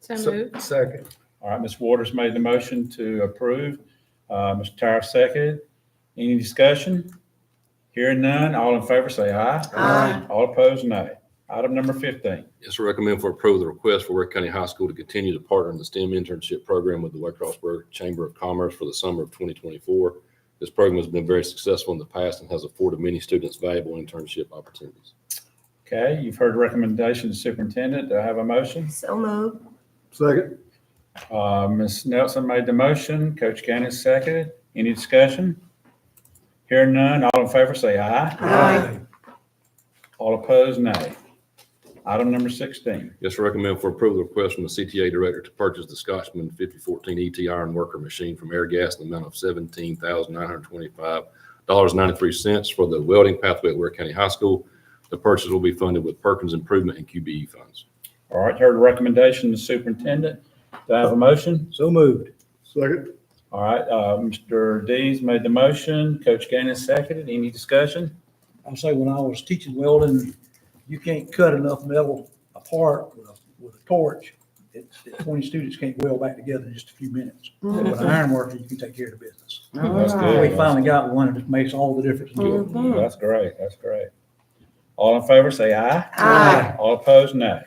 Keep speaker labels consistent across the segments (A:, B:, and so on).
A: So
B: Se-
A: moved.
B: Second.
C: All right, Ms. Waters made the motion to approve. Uh, Mr. Tyra seconded. Any discussion? Hearing none, all in favor say aye.
A: Aye.
C: All opposed, nay. Item number 15.
D: Yes, sir. Recommend for approval the request for Ware County High School to continue to partner in the STEM internship program with the Ware Crossburg Chamber of Commerce for the summer of 2024. This program has been very successful in the past and has afforded many students valuable internship opportunities.
C: Okay, you've heard the recommendation of the superintendent. Do I have a motion?
E: So moved.
B: Second.
C: Uh, Ms. Nelson made the motion. Coach Gaines seconded. Any discussion? Hearing none, all in favor say aye.
E: Aye.
C: All opposed, nay. Item number 16.
D: Yes, sir. Recommend for approval the request from the CTA Director to purchase the Scotchman E 5014 ET Iron Worker Machine from Airgas in the amount of $17,925.93 for the welding pathway at Ware County High School. The purchase will be funded with Perkins Improvement and QBE funds.
C: All right, heard the recommendation of the superintendent. Do I have a motion?
B: So moved. Second.
C: All right, uh, Mr. Dees made the motion. Coach Gaines seconded. Any discussion?
F: I'll say when I was teaching welding, you can't cut enough metal apart with a, with a torch. It, that twenty students can't weld back together in just a few minutes. But with an iron worker, you can take care of the business.
C: That's
F: We
C: good.
F: finally got one and it makes all the difference. in the world.
E: Mhm.
C: That's great. That's great. All in favor, say aye.
E: Aye.
C: All opposed, nay.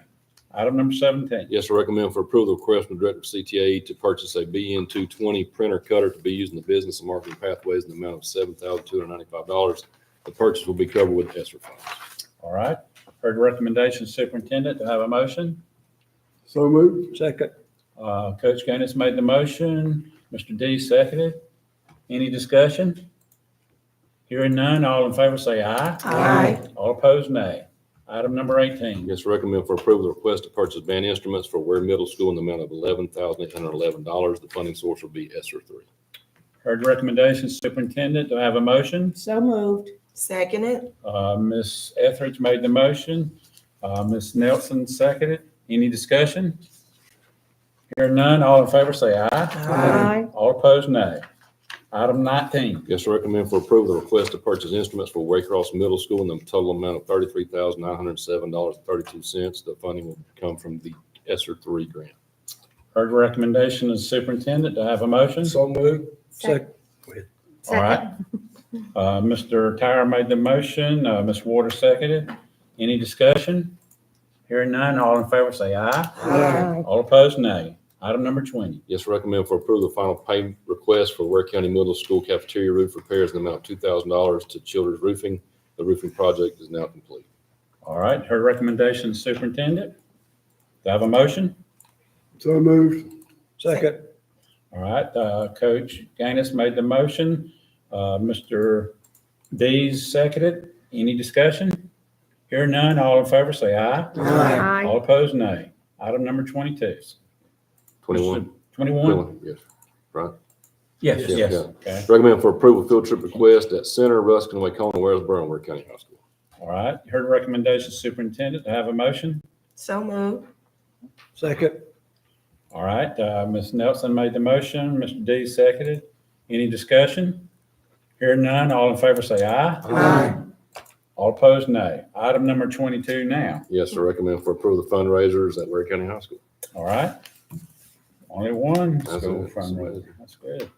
C: Item number 17.
D: Yes, I recommend for approval, the request from the Director of CTA to purchase a BN two twenty printer cutter to be used in the business and marketing pathways in the amount of seven thousand two hundred ninety-five dollars. The purchase will be covered with ESSER funds.
C: All right, heard the recommendation of the superintendent. Do I have a motion?
B: So
C: Mm-hmm.
B: moved.
F: Second,
C: Uh, Coach Gaines made the motion. Mr. Dees seconded. Any discussion? Hearing none, all in favor, say aye.
E: Aye.
C: All opposed, nay. Item number 18.
D: Yes, I recommend for approval, the request to purchase band instruments for Ware Middle School in the amount of eleven thousand eight hundred eleven dollars. The funding source will be ESSER three.
C: Heard the recommendation, superintendent, do I have a motion?
A: So moved.
E: Second it.
C: Uh, Ms. Etheridge made the motion, uh, Ms. Nelson seconded. Any discussion? Hearing none, all in favor say aye.
A: Aye.
C: All opposed, nay. Item 19.
D: Yes, I recommend for approval, the request to purchase instruments for Waycross Middle School in the total amount of thirty-three thousand nine hundred seven dollars and thirty-two cents. The funding will come from the ESSER three grant.
C: Heard the recommendation of the superintendent, do I have a motion?
B: So moved.
F: second,
C: All right. Uh, Mr. Tyra made the motion, uh, Ms. Waters seconded. Any discussion? Hearing none, all in favor say aye.
E: Aye.
C: All opposed, nay. Item number 20.
D: Yes, recommend for approval, the final pay request for Ware County Middle School cafeteria roof repairs in the amount of two thousand dollars to Childers Roofing. The roofing project is now complete.
C: All right, heard recommendation, superintendent. Do I have a motion?
B: So moved.
F: second,
C: All right, uh, Coach Gaines made the motion. Uh, Mr. Dees seconded. Any discussion? Hear none, all in favor say aye.
B: Aye.
C: All opposed, nay. Item number 22.
D: Twenty-one?
C: 21?
D: Yes.
C: Yes,
D: Yeah,
C: yes.
D: yeah.
C: Okay,
D: Recommend for approval, field trip request at Center, Ruskin, Wakeona, Waresboro, and Ware County High School.
C: all right. Heard the recommendation, superintendent, to have a motion.
E: So moved.
F: second,
C: All right, uh, Ms. Nelson made the motion, Mr. Dees seconded. Any discussion? Hear none, all in favor say aye.
E: Aye.
C: All opposed, nay. Item number 22 now.
D: Yes, sir. Recommend for approval, the fundraisers at Ware County High School.
C: All right. Only one
D: That's
C: school
D: it.
C: fundraiser. That's good.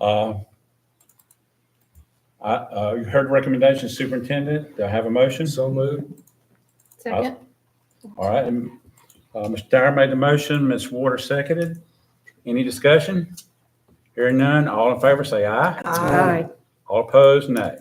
C: Uh, I, uh, you heard recommendation superintendent. Do I have a motion? Uh,
B: So moved.
A: Second.
C: All right. and, Uh, Mr. Dyer made the motion. Ms. Water seconded. Any discussion? Hearing none. All in favor, say aye.
E: Aye.
C: All opposed, nay.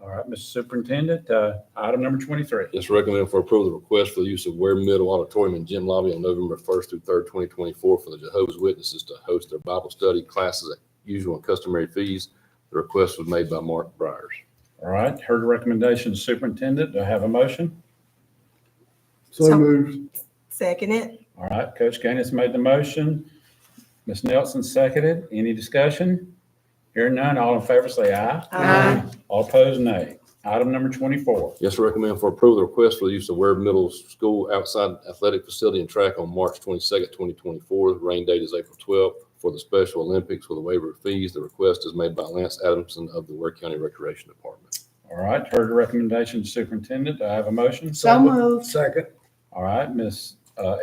C: All right, Mr. Superintendent, uh, item number twenty-three.
D: Yes, recommend for approval, the request for the use of Ware Middle Auditorium and Gym Lobby on November first through third, twenty twenty-four for the Jehovah's Witnesses to host their Bible study classes at usual and customary fees. The request was made by Mark Briers.
C: All right, heard the recommendation superintendent. Do I have a motion?
B: So
E: So-
B: moved.
E: Second it.
C: All right, Coach Gaines made the motion. Ms. Nelson seconded. Any discussion? Hearing none, all in favor say aye.
E: Aye.
C: All opposed, nay. Item number 24.
D: Yes, sir, recommend for approval, the request for the use of Ware Middle School outside athletic facility and track on March twenty-second, twenty twenty-four. The rain date is April twelfth for the Special Olympics with a waiver of fees. The request is made by Lance Adamson of the Ware County Recreation Department.
C: All right, heard the recommendation superintendent. Do I have a motion?
A: So moved.
B: Second.
C: All right, Ms. uh,